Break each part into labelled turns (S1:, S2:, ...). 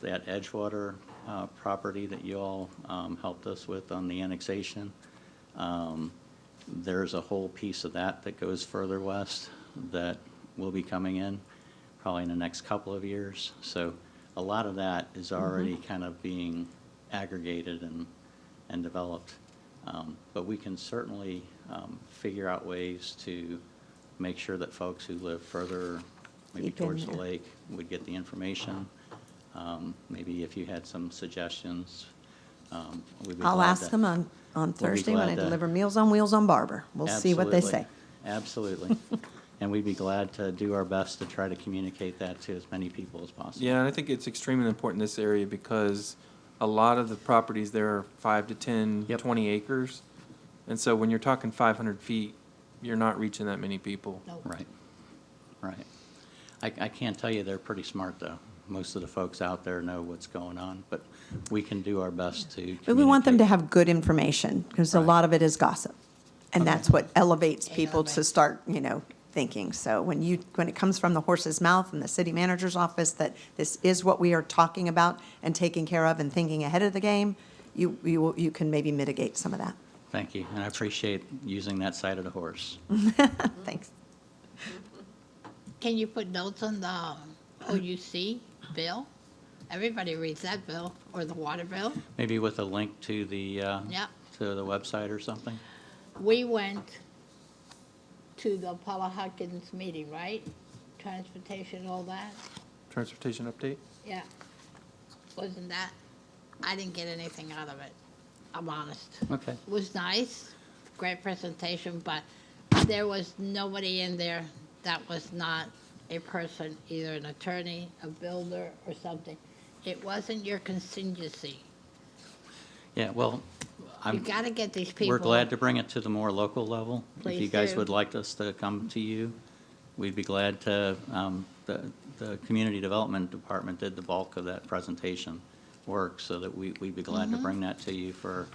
S1: that Edgewater uh, property that you all um, helped us with on the annexation. Um, There's a whole piece of that that goes further west that will be coming in probably in the next couple of years. So a lot of that is
S2: Mm-hmm.
S1: already kind of being aggregated and, and developed. Um, But we can certainly um, figure out ways to make sure that folks who live further, maybe
S2: Keep in
S1: towards the
S2: there.
S1: lake, would get the information. Um, Maybe if you had some suggestions, um, we'd be glad
S2: I'll ask
S1: to-
S2: them on,
S1: We'll
S2: on
S1: be
S2: Thursday when
S1: glad
S2: I
S1: to-
S2: deliver Meals on Wheels on Barber. We'll see what they say.
S1: Absolutely. Absolutely. And we'd be glad to do our best to try to communicate that to as many people as possible.
S3: Yeah, and I think it's extremely important in this area because a lot of the properties there are five to 10,
S1: Yep.
S3: 20 acres. And so when you're talking 500 feet, you're not reaching that many people.
S1: Right, right. I, I can't tell you, they're pretty smart, though. Most of the folks out there know what's going on, but we can do our best to.
S2: But we want them to
S1: communicate.
S2: have good information, because a
S1: Right.
S2: lot of it is gossip. And that's what elevates
S4: Yeah,
S2: people to
S4: right.
S2: start, you know, thinking. So when you, when it comes from the horse's mouth and the city manager's office, that this is what we are talking about and taking care of and thinking ahead of the game, you, you, will- you can maybe mitigate some of that.
S1: Thank you, and I appreciate using that side of the horse.
S4: Mm-hmm.
S2: Thanks.
S4: Can you put notes on the um, OUC bill? Everybody reads that bill, or the water bill.
S1: Maybe with a link to the, uh,
S4: Yep.
S1: to the website or something?
S4: We went to the Paula Hawkins meeting, right? Transportation, all that,
S3: Transportation update?
S4: yeah. Wasn't that, I didn't get anything out of it, I'm honest.
S1: Okay,
S4: It was nice, great presentation, but there was nobody in there that was not a person, either an attorney, a builder, or something. It wasn't your contingency.
S1: yeah, well,
S4: You
S1: I'm,
S4: gotta get these people.
S1: we're glad to bring it to the more local level. If you
S4: Please
S1: guys
S4: do.
S1: would like us to come to you, we'd be glad to, um, the, the Community Development Department did the bulk of that presentation work, so that we, we'd be glad to bring that to you for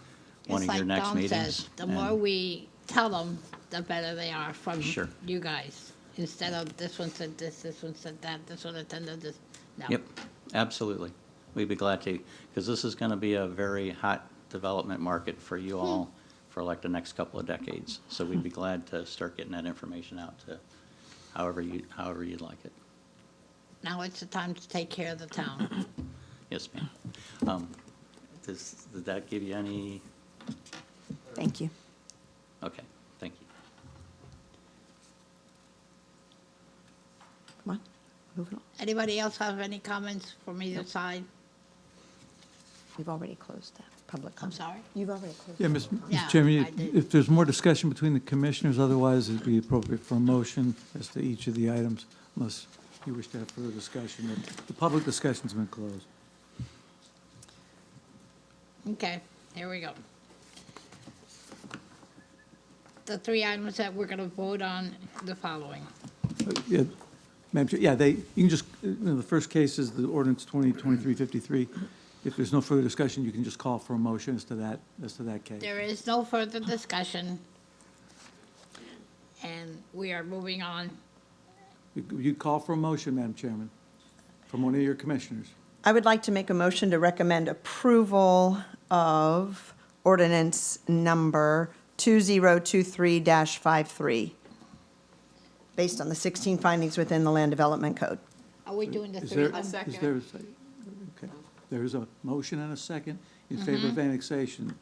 S1: one
S4: Mm-hmm. It's
S1: of your
S4: like
S1: next
S4: Dawn
S1: meetings.
S4: says, The more
S1: And-
S4: we tell them, the better they are from
S1: Sure.
S4: you guys. Instead of this one said this, this one said that, this one attended this, no.
S1: Yep, absolutely. We'd be glad to, because this is going to be a very hot development market for
S4: Hmm.
S1: you all for like the next couple of decades. So we'd be glad to start getting that information out to however you, however you'd like it.
S4: Now it's the time to take care of the town.
S1: Yes, ma'am. Um, Does, did that give you any,
S2: Thank you.
S1: okay, thank you.
S2: Come on, moving on.
S4: Anybody else have any comments from either side?
S2: We've already closed that public
S4: I'm
S2: comment.
S4: sorry?
S2: You've already closed.
S5: Yeah,
S2: it.
S5: Ms.
S4: Yeah,
S5: Mr. Chairman,
S4: I did.
S5: if- if there's more discussion between the commissioners, otherwise it'd be appropriate for a motion as to each of the items, unless you wish to have further discussion. The- The public discussion's been closed.
S4: Okay, here we go. The three items that we're gonna vote on, the following.
S5: Uh, yeah, Madam Chair, yeah, they, you can just, you know, the first case is the ordinance 2023-53. If there's no further discussion, you can just call for a motion as to that, as to that case.
S4: There is no further discussion. And we are moving on.
S5: You you call for a motion, Madam Chairman, from one of your commissioners.
S2: I would like to make a motion to recommend approval of ordinance number 2023-53, based on the 16 findings within the Land Development Code.
S4: Are we doing the
S5: Is
S4: three?
S5: there, is there a second? Okay. There is a motion and a second in favor of annexation.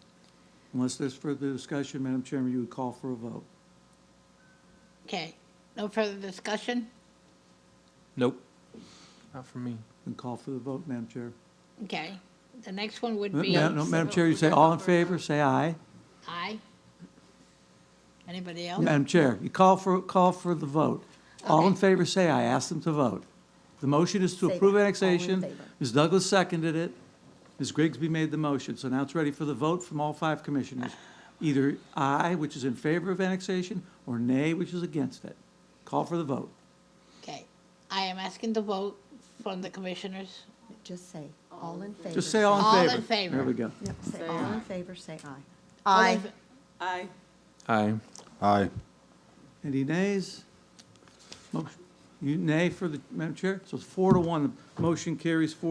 S5: Unless there's further discussion, Madam Chairman, you would call for a vote.
S4: Okay, no further discussion?
S3: Nope. Not for me.
S5: And call for the vote, Madam Chair.
S4: Okay, the next one would
S5: Ma-
S4: be
S5: ma- no, Madam Chair, you say all in favor, say aye.
S4: aye. Anybody else?
S5: Madam Chair, you call for, call for the vote. All in favor, say aye. Ask them to vote. The motion is to
S2: Say
S5: approve
S2: that. All in
S5: annexation.
S2: favor.
S5: Ms. Douglas seconded it. Ms. Grigsby made the motion. So now it's ready for the vote from all five commissioners. Either aye, which is in favor of annexation, or nay, which is against it. Call for the vote.
S4: Okay, I am asking the vote from the commissioners.
S2: Just say, all in favor.
S5: Just say all
S4: All
S5: in favor.
S4: in favor.
S5: There we go.
S2: Yep, say
S6: Say
S2: all in favor, say aye.
S4: All
S2: Aye.
S4: in fa-
S6: Aye.
S3: Aye.
S7: Aye.
S5: Any nays? Motion, you nay for the, Madam Chair? So it's four to one. The Motion carries four